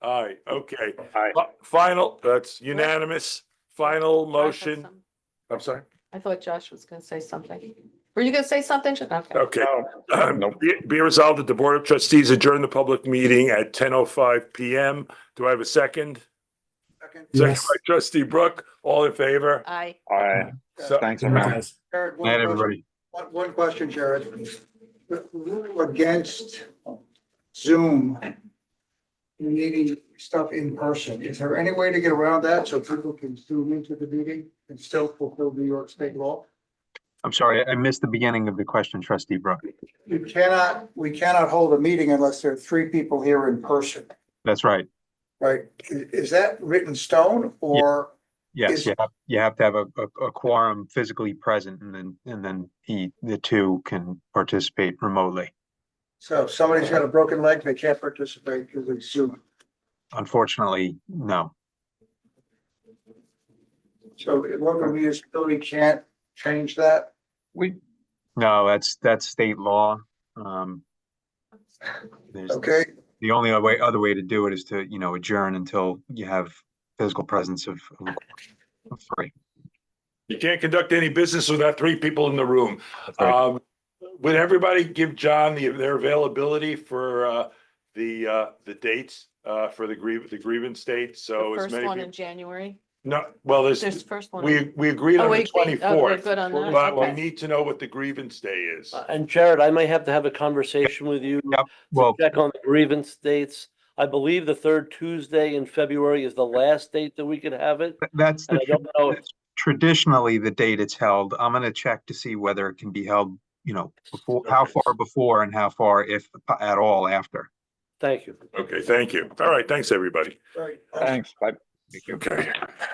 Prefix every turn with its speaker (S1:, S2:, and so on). S1: All right, okay.
S2: Aye.
S1: Fi- Final, that's unanimous. Final motion. I'm sorry.
S3: I thought Josh was gonna say something. Were you gonna say something? Okay.
S1: Okay.
S2: No,
S1: Um,
S2: Nope.
S1: Be be resolved that the Board of Trustees adjourn the public meeting at ten oh five PM. Do I have a second?
S4: Second.
S1: Second
S5: Yes.
S1: by trustee Brooke, all in favor?
S3: I,
S2: all right,
S1: So,
S2: thanks, everyone.
S4: Jared, one
S5: Night,
S4: question-
S5: everybody.
S4: One, one question, Jared. The rule Against Zoom needing stuff in person, is there any way to get around that so people can zoom into the meeting and still fulfill New York state law?
S5: I'm sorry, I missed the beginning of the question, trustee Brooke.
S4: You cannot, we cannot hold a meeting unless there are three people here in person,
S5: That's right.
S4: right? I- Is that written stone or?
S5: Yes,
S4: Is-
S5: you have, you have to have a, a, a quorum physically present and then, and then the, the two can participate remotely.
S4: So if somebody's got a broken leg, they can't participate because of Zoom.
S5: Unfortunately, no.
S4: So local municipality can't change that?
S5: We. No, that's, that's state law. Um. There's,
S4: Okay,
S5: the only way, other way to do it is to, you know, adjourn until you have physical presence of, of- of three.
S1: You can't conduct any business without three people in the room.
S5: right.
S1: Um, would everybody give John the, their availability for, uh, the, uh, the dates, uh, for the grievance, the grievance date? So
S3: the
S1: as
S3: first
S1: many
S3: one in
S1: people,
S3: January,
S1: no, well,
S3: there's
S1: there's,
S3: the first one. in-
S1: we, we agreed on
S3: Oh,
S1: the
S3: wait, wait, oh, we're
S1: twenty-fourth.
S3: Good on that,
S1: But we
S3: okay.
S1: need to know what the grievance day is.
S6: Uh, And Jared, I might have to have a conversation with you to
S5: Well,
S6: check on the grievance dates. I believe the third Tuesday in February is the last date that we could have it.
S5: th- that's the.
S6: And I don't know if
S5: traditionally the date it's held. I'm gonna check to see whether it can be held, you know, before, how
S1: Okay.
S5: far before and how far if at all after.
S6: Thank you.
S1: Okay, thank you. All right, thanks, everybody.
S4: right.
S2: Thanks, bye.
S1: Okay.